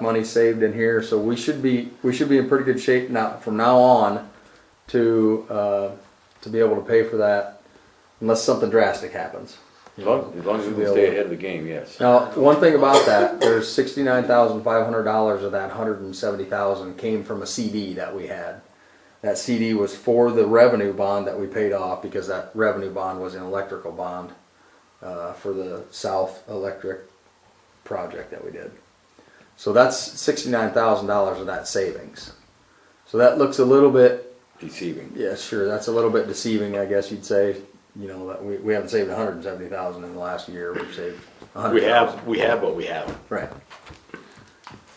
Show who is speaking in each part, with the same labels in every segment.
Speaker 1: money saved in here, so we should be, we should be in pretty good shape now, from now on to, uh, to be able to pay for that unless something drastic happens.
Speaker 2: As long, as long as we can stay ahead of the game, yes.
Speaker 1: Now, one thing about that, there's sixty-nine thousand five hundred dollars of that hundred and seventy thousand came from a CD that we had. That CD was for the revenue bond that we paid off because that revenue bond was an electrical bond uh, for the South Electric project that we did. So that's sixty-nine thousand dollars of that savings. So that looks a little bit
Speaker 2: Deceiving.
Speaker 1: yeah, sure. That's a little bit deceiving, I guess you'd say. You know, that we, we haven't saved 170,000 in the last year. We've saved 100,000.
Speaker 3: We have, we have what we have.
Speaker 1: Right.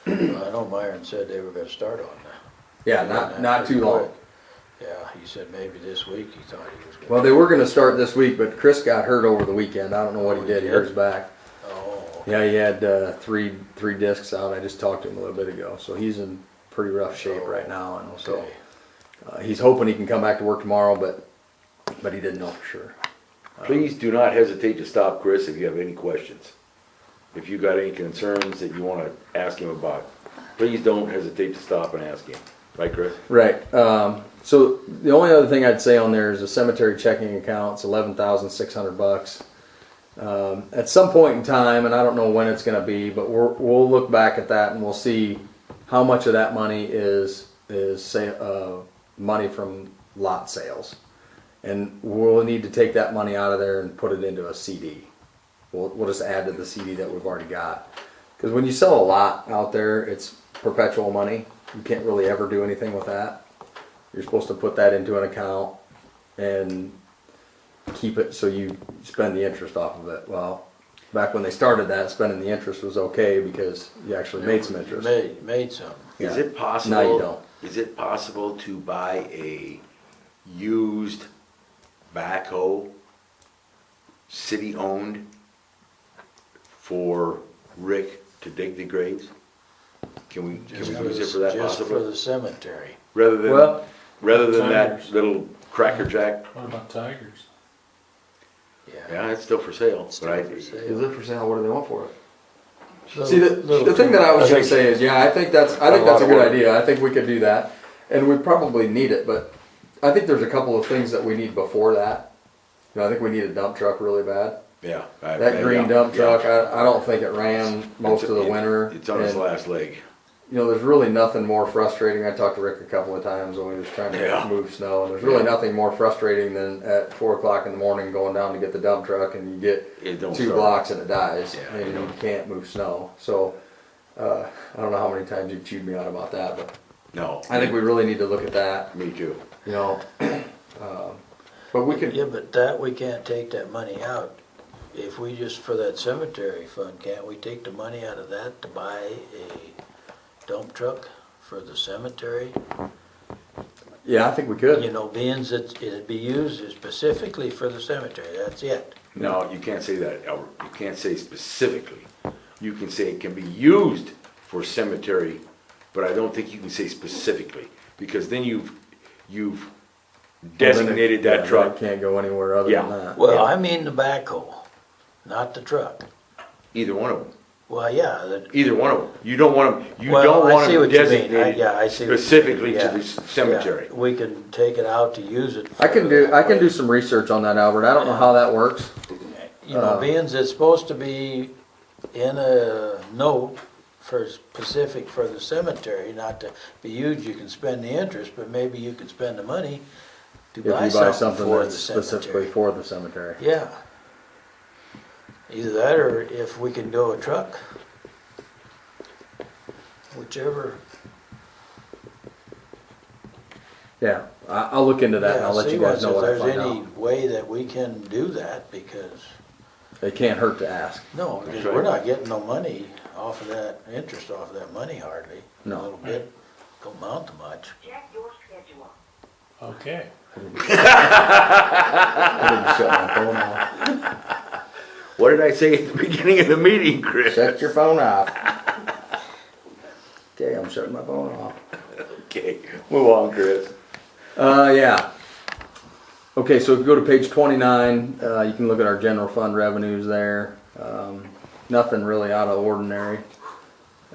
Speaker 4: I know Myron said they were gonna start on that.
Speaker 1: Yeah, not, not too long.
Speaker 4: Yeah, he said maybe this week he thought he was gonna.
Speaker 1: Well, they were going to start this week, but Chris got hurt over the weekend. I don't know what he did. He hurt his back.
Speaker 4: Oh,
Speaker 1: Yeah, he had uh, three three discs out. I just talked to him a little bit ago. So he's in pretty rough shape right now. And so
Speaker 4: okay.
Speaker 1: uh, he's hoping he can come back to work tomorrow, but but he didn't know for sure.
Speaker 2: Please do not hesitate to stop Chris if you have any questions. If you got any concerns that you wanna ask him about, please don't hesitate to stop and ask him. Right, Chris?
Speaker 1: Right. Um, so the only other thing I'd say on there is a cemetery checking account. It's eleven thousand six hundred bucks. Um, at some point in time, and I don't know when it's going to be, but we're, we'll look back at that and we'll see how much of that money is is say uh, money from lot sales, and we'll need to take that money out of there and put it into a CD. We'll, we'll just add to the CD that we've already got. Because when you sell a lot out there, it's perpetual money. You can't really ever do anything with that. You're supposed to put that into an account and keep it so you spend the interest off of it. Well, back when they started that, spending the interest was okay because you actually made some interest.
Speaker 4: oh. Made, made some.
Speaker 3: Is
Speaker 1: Yeah.
Speaker 3: it possible?
Speaker 1: Now you don't.
Speaker 3: Is it possible to buy a used backhoe, city-owned, for Rick to dig the graves? Can we, can
Speaker 4: Just
Speaker 3: we use it for
Speaker 4: the-
Speaker 3: that
Speaker 4: Just for
Speaker 3: possibly?
Speaker 4: the cemetery.
Speaker 3: Rather than,
Speaker 1: Well-
Speaker 3: rather than that
Speaker 5: Tigers.
Speaker 3: little cracker jack,
Speaker 5: What about tigers?
Speaker 4: Yeah.
Speaker 3: yeah, it's still for sale,
Speaker 4: It's
Speaker 3: but I,
Speaker 4: still for sale.
Speaker 1: Is it for sale? What do they want for it?
Speaker 4: Little-
Speaker 1: See, the,
Speaker 4: little
Speaker 1: the thing that I was gonna say is, yeah, I think that's, I think
Speaker 3: Got a lot
Speaker 1: that's a
Speaker 3: of
Speaker 1: good
Speaker 3: work.
Speaker 1: idea, I think we could do that, and we probably need it, but I think there's a couple of things that we need before that. You know, I think we need a dump truck really bad,
Speaker 3: yeah. I- I-
Speaker 1: that green
Speaker 3: yeah,
Speaker 1: dump
Speaker 3: yeah.
Speaker 1: truck, I, I don't think it ran most
Speaker 3: It's-
Speaker 1: of the
Speaker 3: it-
Speaker 1: winter.
Speaker 3: It's on its
Speaker 1: and,
Speaker 3: last leg.
Speaker 1: You know, there's really nothing more frustrating, I talked to Rick a couple of times when he was trying
Speaker 3: Yeah.
Speaker 1: to move snow, and there's really nothing more frustrating than at four o'clock in the morning going down to get the dump truck and you get
Speaker 3: It don't
Speaker 1: two
Speaker 3: start.
Speaker 1: blocks and it dies,
Speaker 3: Yeah,
Speaker 1: and
Speaker 3: you
Speaker 1: you can't move snow. So uh, I don't know how many times you chewed me out about that, but
Speaker 3: No.
Speaker 1: I think we really need to look at that.
Speaker 3: Me too.
Speaker 1: You know, um, but we could.
Speaker 4: Yeah, but that, we can't take that money out. If we just, for that cemetery fund, can't we take the money out of that to buy a dump truck for the cemetery?
Speaker 1: Yeah, I think we could.
Speaker 4: You know, being that it'd be used specifically for the cemetery, that's it.
Speaker 3: No, you can't say that, Albert. You can't say specifically. You can say it can be used for cemetery, but I don't think you can say specifically, because then you've, you've designated
Speaker 1: Yeah,
Speaker 3: that
Speaker 1: then It
Speaker 3: truck.
Speaker 1: can't go anywhere other
Speaker 3: Yeah.
Speaker 1: than that.
Speaker 4: Well, I mean the backhoe, not the truck.
Speaker 3: Either one of them,
Speaker 4: Well, yeah, the-
Speaker 3: either one of them. You don't want them, you
Speaker 4: Well,
Speaker 3: don't
Speaker 4: I
Speaker 3: want
Speaker 4: see
Speaker 3: them
Speaker 4: what you mean. I-
Speaker 3: designated
Speaker 4: yeah, I see what you mean.
Speaker 3: specifically to
Speaker 4: Yeah,
Speaker 3: the
Speaker 4: yeah.
Speaker 3: cemetery.
Speaker 4: We can take it out to use it.
Speaker 1: I can do. I can do some research on that, Albert. I don't know how that works.
Speaker 4: You
Speaker 1: uh,
Speaker 4: know, being it's supposed to be in a note for specific for the cemetery, not to be used, you can spend the interest, but maybe you could spend the money to
Speaker 1: If you
Speaker 4: buy
Speaker 1: buy
Speaker 4: something
Speaker 1: something
Speaker 4: for the
Speaker 1: that's specifically
Speaker 4: cemetery.
Speaker 1: for the cemetery,
Speaker 4: Yeah. Either that or if we can do a truck. Whichever.
Speaker 1: yeah, I, I'll look into that and
Speaker 4: Yeah,
Speaker 1: I'll let
Speaker 4: see
Speaker 1: you guys
Speaker 4: what's-
Speaker 1: know what I
Speaker 4: If
Speaker 1: find
Speaker 4: there's any
Speaker 1: out.
Speaker 4: way that we can do that, because,
Speaker 1: It can't hurt to ask.
Speaker 4: no, because
Speaker 3: right.
Speaker 4: we're not getting no money off of that, interest off of that money hardly.
Speaker 1: No.
Speaker 4: A little bit, don't amount to much.
Speaker 6: Check your schedule.
Speaker 5: Okay.
Speaker 1: I didn't shut my phone off.
Speaker 3: What did I say at the beginning of the meeting, Chris?
Speaker 1: Shut your phone off. Okay, I'm shutting my phone off.
Speaker 3: Okay, move on, Chris.
Speaker 1: Uh, yeah. Okay, so if you go to page twenty-nine, uh, you can look at our general fund revenues there. Um, nothing really out of ordinary.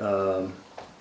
Speaker 1: Um,